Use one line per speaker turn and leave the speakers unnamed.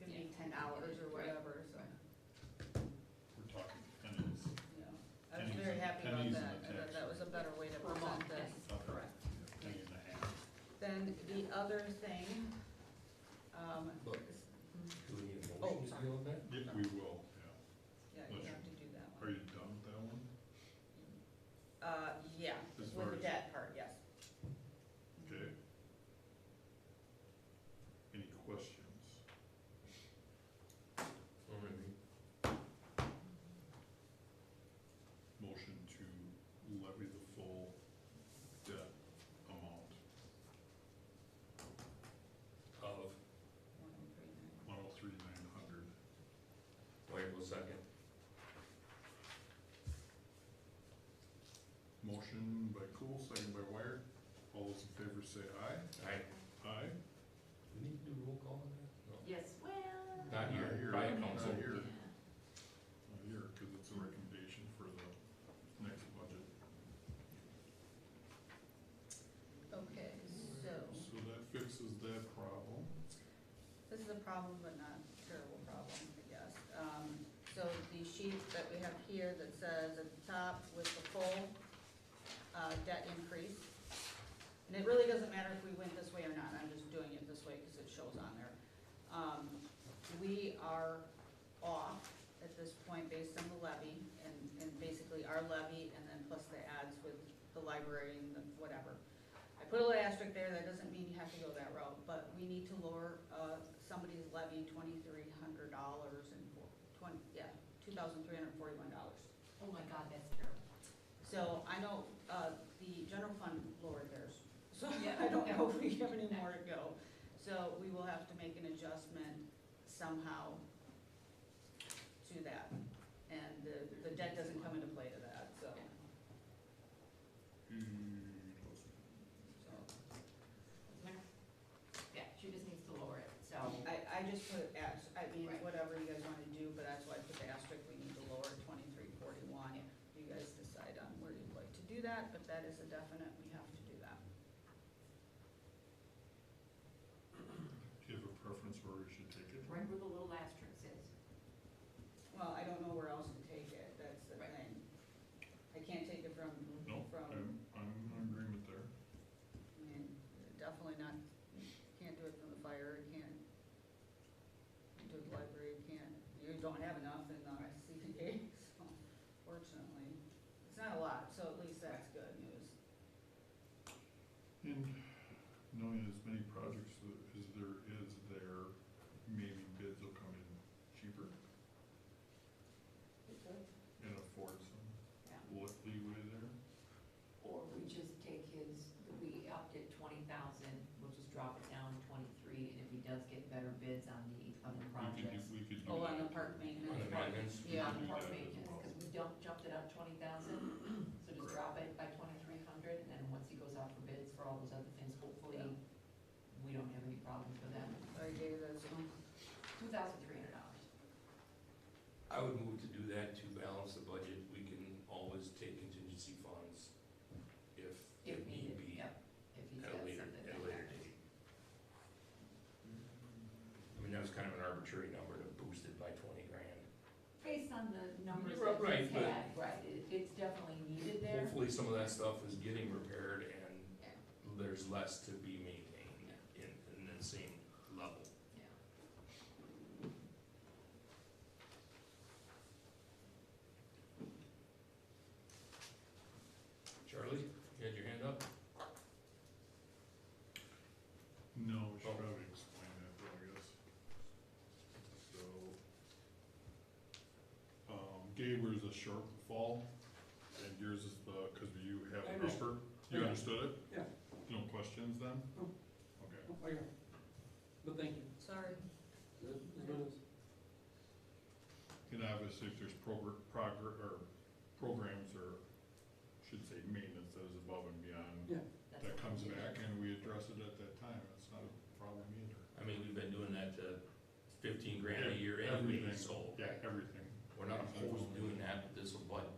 ten hours or whatever, so,
We're talking pennies.
you know. I was
Pennies
very
and-
happy about
pennies
that,
and the
I thought
tax.
that was a better way to
Per
present
month,
this.
Okay.
Correct.
Penny uh, and a half.
Then the other thing, um,
Look.
is-
Mm-hmm.
Do we need a
Oh,
motion to
sorry.
deal with that?
Yeah, we will, yeah.
yeah, you have to do that
Are
one.
you done with that one?
Uh, yeah,
As
with
far
the
as-
debt part, yes.
Okay. Any questions? Motion to levy the full debt amount,
Of,
One oh three nine.
one oh three nine hundred.
wait a second.
Motion by Cool, second by Wire. All those in favor say aye.
Aye.
Aye.
Do we need to do roll call on that?
Yes, well.
Not here, by
Not
council.
here,
Yeah.
not here, because it's a recommendation for the next budget.
Okay, so,
So that fixes that problem.
this is a problem, but not terrible problem, I guess. Um, so the sheet that we have here that says at the top with the full, uh, debt increase. And it really doesn't matter if we went this way or not, I'm just doing it this way because it shows on there. Um, we are off at this point based on the levy and, and basically our levy and then plus the ads with the library and the whatever. I put a little asterisk there, that doesn't mean you have to go that route, but we need to lower, uh, somebody's levy twenty-three hundred dollars and four, twenty, yeah, two thousand three hundred forty-one dollars.
Oh my God, that's terrible.
So I know, uh, the general fund lowered theirs, so
Yeah.
I don't know if we have any more to go. So we will have to make an adjustment somehow to that. And the, the debt doesn't come into play to that, so,
Hmm,
so.
Yeah, she just needs to lower it, so.
I, I just put, as- I mean,
Right.
whatever you guys wanna do, but that's why I put the asterisk, we need to lower twenty-three forty-one. You guys decide on where you'd like to do that, but that is a definite, we have to do that.
Do you have a preference where we should take it?
Right where the little asterisk is.
Well, I don't know where else to take it, that's the
Right.
thing. I can't take it from,
No,
from,
I'm, I'm in agreement there.
I mean, definitely not, can't do it from the fire, can't do it library, can't, you don't have enough in the CPA, so fortunately. It's not a lot, so at least that's good news.
And knowing as many projects as there is there, maybe bids will come in cheaper and afford some
Yeah.
leeway there.
Or we just take his, we upped it twenty thousand, we'll just drop it down to twenty-three, and if he does get better bids on the other
We could
projects.
do, we could do.
Oh, on the
that.
park
On the
maintenance.
maintenance?
Yeah.
On park
Yeah.
maintenance, because we don't jumped it up twenty thousand, so just drop it by twenty-three hundred, and then once he goes out for bids for all those other things, hopefully, we don't have any problems with that.
I gave those,
Two thousand three hundred dollars.
I would move to do that to balance the budget. We can always take contingency funds if
If
it need
needed,
be at
yep, if he's got
a
something.
later, at a
that
later
matters.
date. I mean, that was kind of an arbitrary number to boost it by twenty grand.
Based on the numbers that he's
Right, right, but-
had, right, it- it's definitely needed there.
Hopefully, some of that stuff is getting repaired and
Yeah,
there's less to be maintained in, in the same level.
yeah.
Charlie, you had your hand up?
No, we
Oh.
should probably explain that, though, I guess. So, um, Gabor's a short fall, and yours is the, because you have
I
an upper.
understand.
You
Yeah.
understood it?
Yeah.
No questions then?
No.
Okay.
Oh, yeah. But thank you.
sorry.
And obviously, if there's progr- progr- or programs, or should say maintenance that is above and beyond,
that's
that
what
comes
we did.
back and we address it at that time, it's not a problem either.
I mean, we've been doing that to fifteen grand a year
Everything.
anyway, so
Yeah, everything.
we're not opposed to doing that, but this will butt